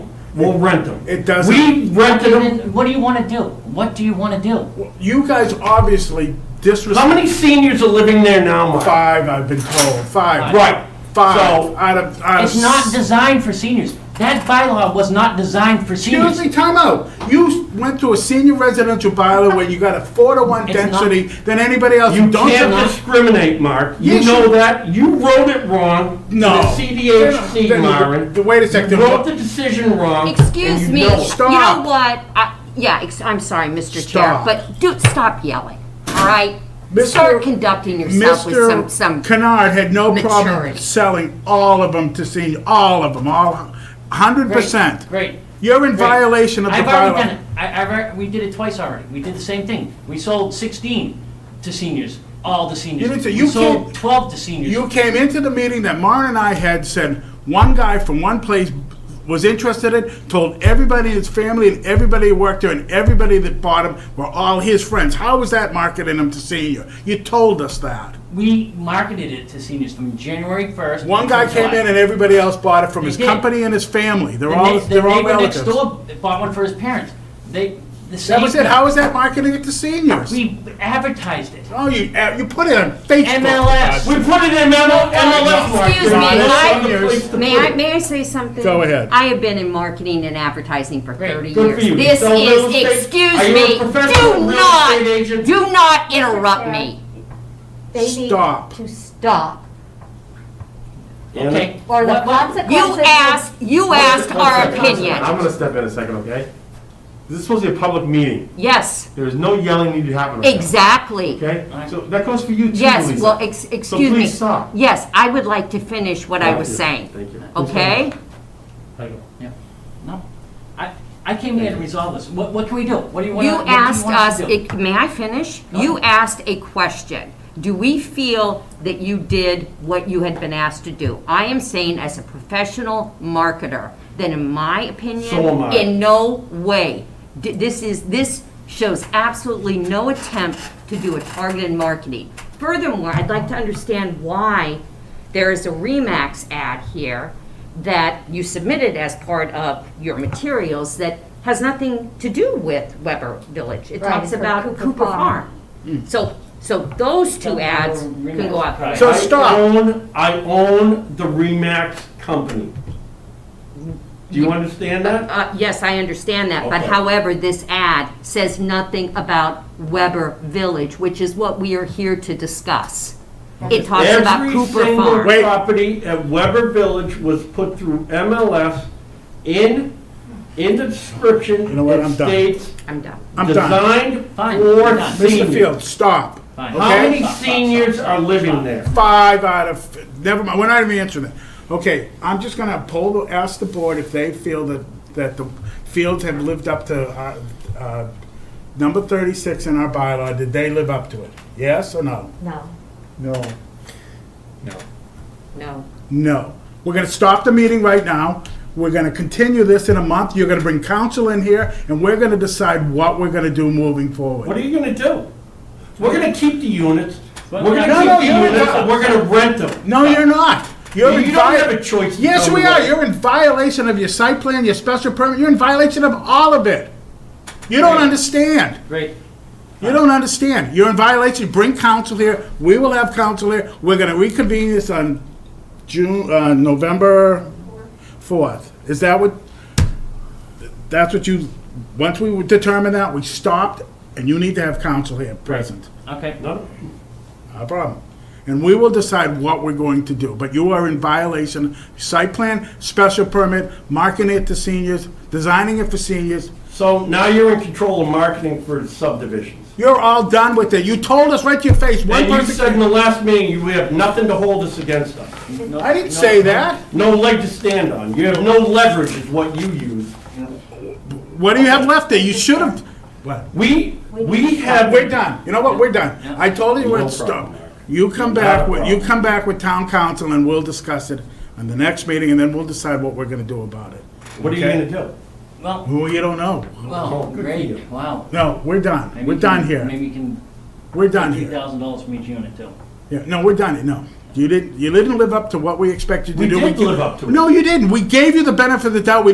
we'll rent them. It doesn't- We rented them, David, what do you want to do? What do you want to do? You guys obviously how disrespect many seniors are living there now, Mark? five, I've been told, five. Right. Five, So- out of, out of. It's not designed for seniors. That bylaw was not designed for Excuse seniors. me, time out. You went to a senior residential bylaw where you got a four to one It's not- density than anybody else. You Don't can't you- discriminate, Mark. You Yes, you- know that. You wrote it wrong. to No. The CDHC, Then- Myron. then- Wait a second. You wrote the decision wrong. Excuse and me. you know it. You know Stop. what? I- Yeah, ex- I'm sorry, Mr. Chair, Stop. but do, stop yelling, all right? Mr. Start conducting yourself with some, Mr. some, Kennard had no problem maturity. selling all of them to senior, all of them, all, hundred percent. Great. You're in violation of the I've already done bylaw. it. I, I've, alre- we did it twice already. We did the same thing. We sold 16 to seniors, all the seniors. You didn't say- We you sold can't- 12 to seniors. You came into the meeting that Maren and I had said, one guy from one place was interested in, told everybody in his family and everybody who worked there and everybody that bought him were all his friends. How was that marketing him to senior? You told us that. We marketed it to seniors from January 1st. One guy to came in July. and everybody else bought it from his did. company and his family. They're The all, ne- they're all relatives. The neighbor next door bought one for his parents. They, the same. That was it. How is that marketing it to seniors? We advertised it. Oh, you uh, you put it on Facebook. MLS. We put it in ML- MLS, Mark. Excuse We're me, not I- the place to may put I, it. may I say something? Go ahead. I have been in marketing and advertising for Great. thirty Good years. for you. This So real is, estate- excuse are you a me, professional real do estate agent? not, do not interrupt me. They need Stop. To stop, Okay. or the What- what- consequences. You asked, you asked our I'm opinion. gonna step in a second, okay? This is supposed to be a public meeting. Yes, There is no yelling needed to happen. right now, exactly. Okay? So that goes for you too, Lisa. Yes, well, ex- excuse me. please stop. Yes, I would like to finish what I Thank was you. saying, Thank you. okay? No. I, I came here to resolve this. What, what can we do? What do you want? You what do asked want us, to do? it- may I finish? You asked a question. Do we feel that you did what you had been asked to do? I am saying as a professional marketer, that in my So am opinion, I. in no way, d- this is, this shows absolutely no attempt to do a targeted marketing. Furthermore, I'd like to understand why there is a Remax ad here that you submitted as part of your materials that has nothing to do with Weber Village. It Right, talks for about Cooper Cooper Farm. Farm. Hmm. So, so those Don't two go ads over can Remax go out. Drive. So I stop. own- I own the Remax company. Do you understand that? Uh, Yes, I understand that, but Okay. however, this ad says nothing about Weber Village, which is what we are here to discuss. It talks about Cooper Every single Farm. Wait. property at Weber Village was put through MLS in, in the description. You know what? it I'm done. states I'm done. I'm done. Designed Fine. for Done. Mr. seniors. Fields, stop. Fine. How Okay. many seniors are living there? Five out of, never mind, we're not even answering that. Okay, I'm just gonna poll, the- ask the board if they feel that, that the Fields have lived up to, uh, uh, number thirty-six in our bylaw, did they live up to it? Yes or no? No. No. No. No. We're gonna stop the meeting right now. We're gonna continue this in a month. You're gonna bring council in here, and we're gonna decide what we're gonna do moving What are forward. you gonna do? We're gonna keep the units, we're Well, gonna no, no, keep you're the units, not. and we're gonna rent them. No, you're not. You're in You don't vi- have a choice. Yes, we are. You're You're in violation of your site plan, your special permit. You're in violation of all of it. You don't understand. Great. You don't understand. You're in violation. Bring counsel here. We will have counsel here. We're gonna reconvene this on June, uh, November fourth. Is that what, that's what you, once we determined that, we stopped, and you need to have counsel here present. Okay. No, Not a problem. And we will decide what we're going to do, but you are in violation, site plan, special permit, marketing it to seniors, designing it for seniors. So now you're in control of marketing for subdivisions. You're all done with it. You told us right to your face, one And you person. said in the last meeting, you have nothing to hold us against us. No- I didn't no- say that. No leg to stand on. You have no leverage is what you use. What do you have left there? You should have. What? We, we have. We're done. You know what? We're done. I told you where No to stop. problem, Eric. You come Not back a with, you problem. come back with town council and we'll discuss it on the next meeting and then we'll decide what we're gonna do about it. What are you Okay? gonna do? Well, Well, you don't know. Oh, well, good for you. great, wow. No, we're done. Maybe We're you done can- here. Maybe you can, We're done two here. thousand dollars from each unit too. Yeah, no, we're done. No, you didn't. You didn't live up to what we expected you We to do. did live up to it. No, you didn't. We gave you the benefit of the doubt. We